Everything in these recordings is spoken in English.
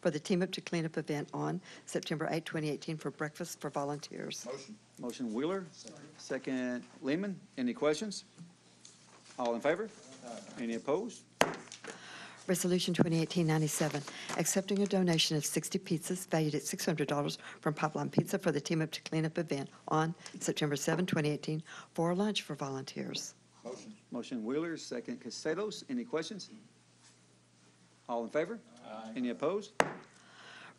for the Team Up to Clean Up event on September 8, 2018, for breakfast for volunteers. Motion. Motion Wheeler, second Lehman. Any questions? All in favor? Any opposed? Resolution 2018-97, accepting a donation of 60 pizzas valued at $600 from Pipeline Pizza for the Team Up to Clean Up event on September 7, 2018, for lunch for volunteers. Motion. Motion Wheeler, second Castelos. Any questions? All in favor? Any opposed?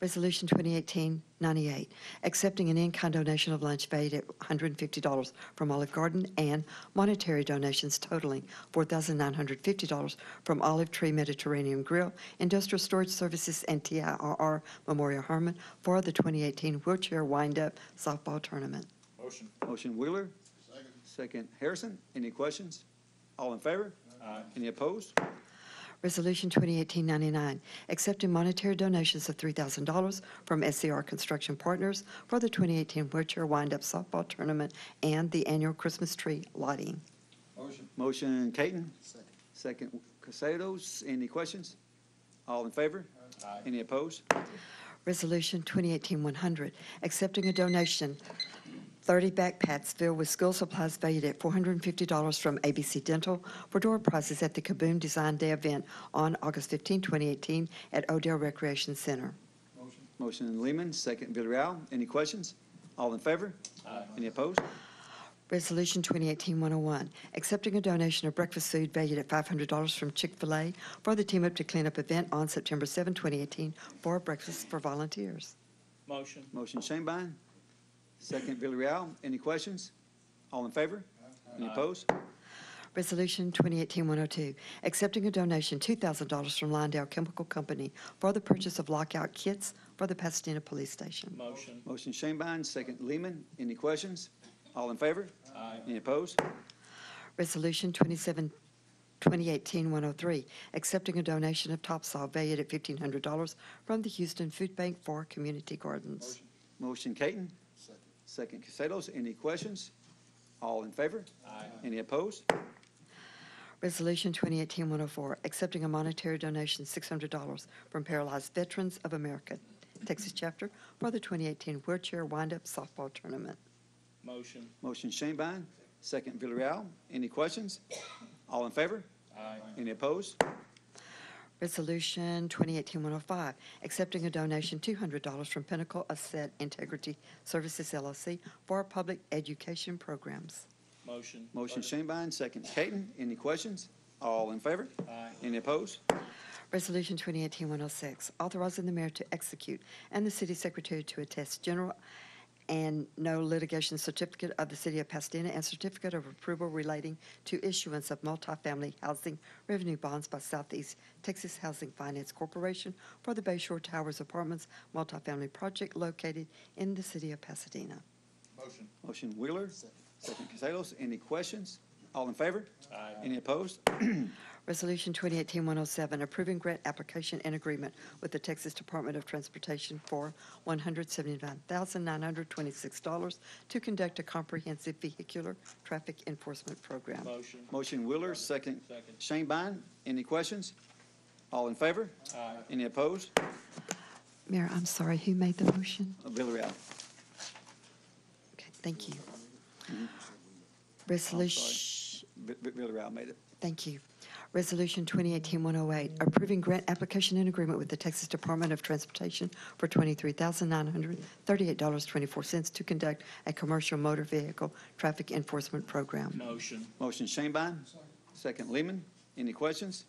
Resolution 2018-98, accepting an in-kind donation of lunch valued at $150 from Olive Garden and monetary donations totaling $4,950 from Olive Tree Mediterranean Grill, Industrial Storage Services, and TIRR Memorial Herman for the 2018 Wheelchair Wind-Up Softball Tournament. Motion. Motion Wheeler, Second. second Harrison. Any questions? All in favor? Aye. Any opposed? Resolution 2018-99, accepting monetary donations of $3,000 from SCR Construction Partners for the 2018 Wheelchair Wind-Up Softball Tournament and the annual Christmas tree lighting. Motion. Motion Katon, Second. second Castelos. Any questions? All in favor? Aye. Any opposed? Resolution 2018-100, accepting a donation, 30 backpacks filled with school supplies valued at $450 from ABC Dental for door prizes at the Kaboom Design Day event on August 15, 2018, at Odell Recreation Center. Motion. Motion Lehman, second Villarreal. Any questions? All in favor? Aye. Any opposed? Resolution 2018-101, accepting a donation of breakfast food valued at $500 from Chick-fil-A for the Team Up to Clean Up event on September 7, 2018, for breakfast for volunteers. Motion, Motion Shanebine, second Villarreal. Any questions? All in favor? Any opposed? Resolution 2018-102, accepting a donation $2,000 from Lyondale Chemical Company for the purchase of lockout kits for the Pasadena Police Station. motion, Motion Shanebine, second Lehman. Any questions? All in favor? aye, Any opposed? Resolution 27, 2018-103, accepting a donation of topsoil valued at $1,500 from the Houston Food Bank for community gardens. Motion. Motion Katon, Second. second Castelos. Any questions? All in favor? aye, Any opposed? Resolution 2018-104, accepting a monetary donation of $600 from Paralyzed Veterans of America, Texas Chapter, for the 2018 Wheelchair Wind-Up Softball Tournament. motion, Motion Shanebine, second Villarreal. Any questions? All in favor? aye, Any opposed? Resolution 2018-105, accepting a donation $200 from Pinnacle Asset Integrity Services LLC for public education programs. motion, Motion Shanebine, second Katon. Any questions? All in favor? aye, Any opposed? Resolution 2018-106, authorizing oh the mayor to execute and the city secretary to attest general and no litigation certificate of the city of Pasadena and certificate of approval relating to issuance of multifamily housing revenue bonds by Southeast Texas Housing Finance Corporation for the Bay Shore Towers Apartments multifamily project located in the city of Pasadena. Motion. Motion Wheeler, Second. second Castelos. Any questions? All in favor? aye, Any opposed? Resolution 2018-107, approving grant application and agreement with the Texas Department of Transportation for $179,926 to conduct a comprehensive vehicular traffic enforcement program. motion, Motion Wheeler, second second, Shanebine. Any questions? All in favor? aye, Any opposed? Oh, Mayor, I'm sorry, who made the motion? Villarreal. Okay, thank you. Resolution. Vi- Vi- Villarreal made it. Thank you. Resolution 2018-108, approving grant application and agreement with the Texas Department of Transportation for $23,938.24 to conduct a commercial motor vehicle traffic enforcement program. motion, Motion Shanebine, second Lehman. Any questions?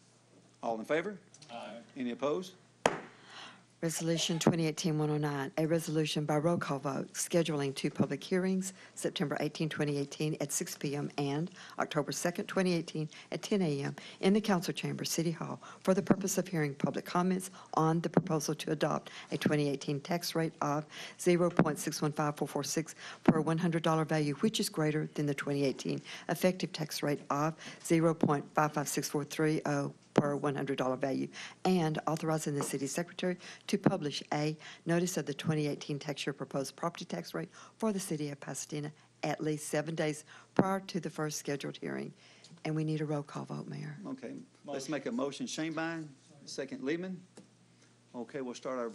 All in favor? aye, Any opposed? Resolution 2018-109, a resolution by roll call vote scheduling two public hearings, September 18, 2018, at 6 p.m. and October 2, 2018, at 10 a.m. in the council chamber, City Hall, for the purpose of hearing public comments on the proposal to adopt a 2018 tax rate of 0.615446 per $100 value, which is greater than the 2018 effective tax rate of 0.556430 per $100 value, and authorizing the city secretary to publish a notice of the 2018 tax year proposed property tax rate for the city of Pasadena at least seven days prior to the first scheduled hearing. And we need a roll call vote, Mayor. Okay, let's make a motion Shanebine, second Lehman. Okay, we'll start our